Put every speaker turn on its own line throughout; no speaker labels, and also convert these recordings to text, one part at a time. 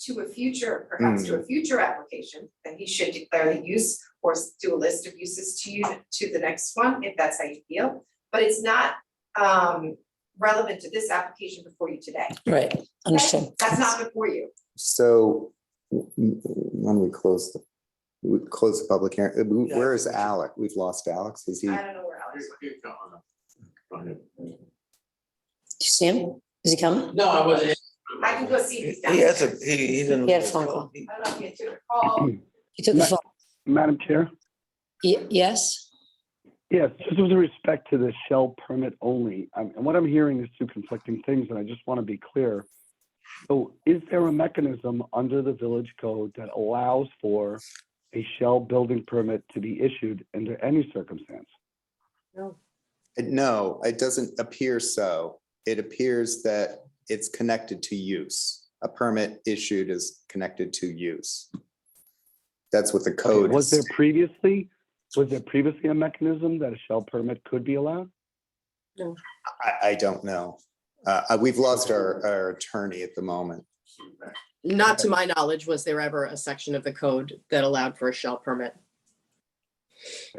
to a future, perhaps
Mm.
to a future application, then he should declare the use or s- do a list of uses to you, to the next one, if that's how you feel. But it's not um relevant to this application before you today.
Right, understood.
That's not before you.
So w- w- when we close, the we close the public hearing, uh,
Yeah.
where is Alec? We've lost Alex. Is he? uh,
I don't know where Alex went.
Do you see him? Is he coming?
No, I wasn't.
I can go see if he's down.
He has a, he, he's in.
He had a phone call.
I don't know if he had to call.
He took the phone.
Madam Chair?
Ye- Yes?
Yes, just with respect to the shell permit only, um, and what I'm hearing is two conflicting things, and I just want to be clear. So is there a mechanism under the village code that allows for a shell building permit to be issued under any circumstance?
No, it doesn't appear so. It appears that it's connected to use. A permit issued is connected to use. That's what the code
Was there
is.
previously, was there previously a mechanism that a shell permit could be allowed?
I, I don't know. Uh, uh, we've lost our, our attorney at the moment.
Not to my knowledge, was there ever a section of the code that allowed for a shell permit?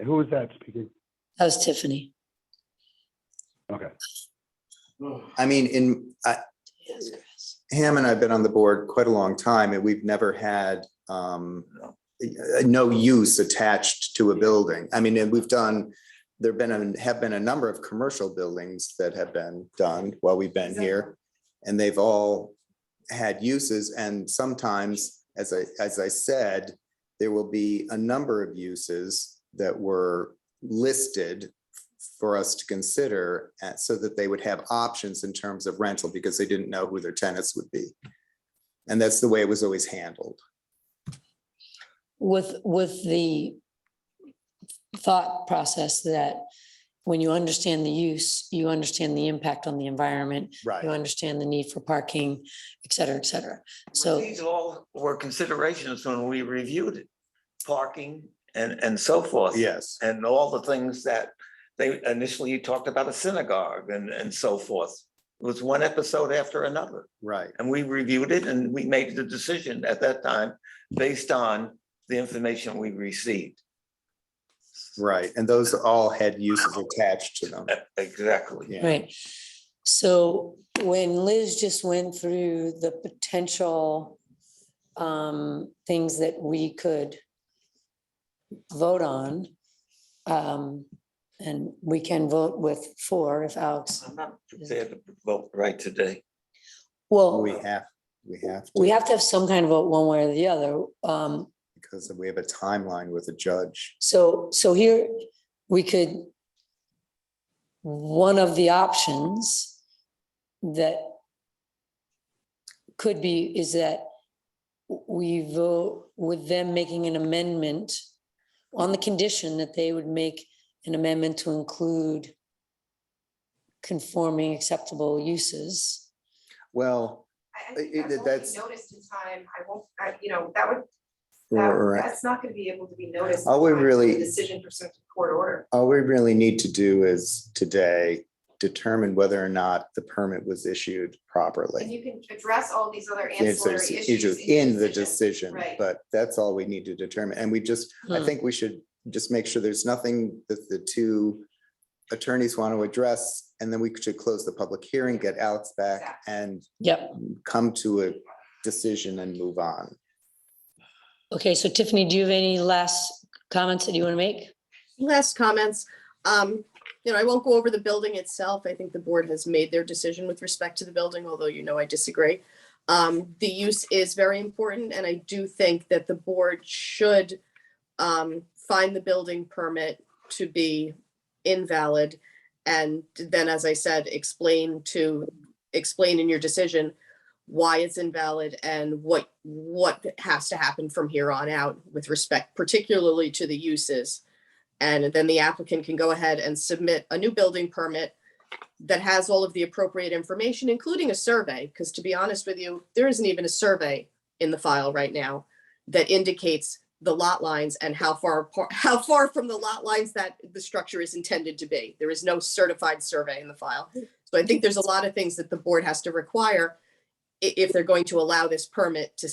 Who was that speaking?
That was Tiffany.
Okay.
Oh.
I mean, in, I, Ham and I have been on the board quite a long time and we've never had um uh, no use attached to a building. I mean, and we've done, there've been, a- have been a number of commercial buildings that have been done while we've been here. And they've all had uses and sometimes, as I, as I said, there will be a number of uses that were listed for us to consider uh, so that they would have options in terms of rental because they didn't know who their tenants would be. And that's the way it was always handled.
With, with the thought process that when you understand the use, you understand the impact on the environment, you understand the need for parking, et cetera, et cetera. So
These all were considerations when we reviewed it, parking and, and so forth.
Yes.
And all the things that they initially talked about a synagogue and, and so forth. It was one episode after another.
Right.
And we reviewed it and we made the decision at that time based on the information we received.
Right. And those all had uses attached to them.
E- Exactly.
Yeah.
Right. So when Liz just went through the potential um, things that we could vote on, um, and we can vote with four if Alex,
I'm not prepared to vote right today.
well,
We have, we have, to
we have to have some kind of vote one way or the other. Um,
because we have a timeline with a judge.
So, so here, we could, one of the options that could be is that we vote with them making an amendment on the condition that they would make an amendment to include conforming acceptable uses.
Well,
I I
It-
think that
it-
won't
that's-
be noticed in time. I won't, I, you know, that would,
or-
that,
or-
that's not gonna be able to be noticed. in
All we
time for
really-
the Decision pursuant to court order.
all we really need to do is today determine whether or not the permit was issued
And
properly.
you can address all these other
If
ancillary
there's
issues.
In
your
the decision,
Right.
but that's all we need to determine. And we just I
Hmm.
think we should just make sure there's nothing that the two attorneys want to address, and then we should close the public hearing, get Alex back
Exactly.
and
Yep.
come to a decision and move on.
Okay, so Tiffany, do you have any last comments that you want to make?
Last comments, um, you know, I won't go over the building itself. I think the board has made their decision with respect to the building, although you know I disagree. Um, the use is very important and I do think that the board should um, find the building permit to be invalid. And then, as I said, explain to, explain in your decision why it's invalid and what, what has to happen from here on out with respect particularly to the uses. And then the applicant can go ahead and submit a new building permit that has all of the appropriate information, including a survey, because to be honest with you, there isn't even a survey in the file right now that indicates the lot lines and how far, apart- how far from the lot lines that the structure is intended to be. There is no certified survey in the file. So I think there's a lot of things that the board has to require i- if they're going to allow this permit to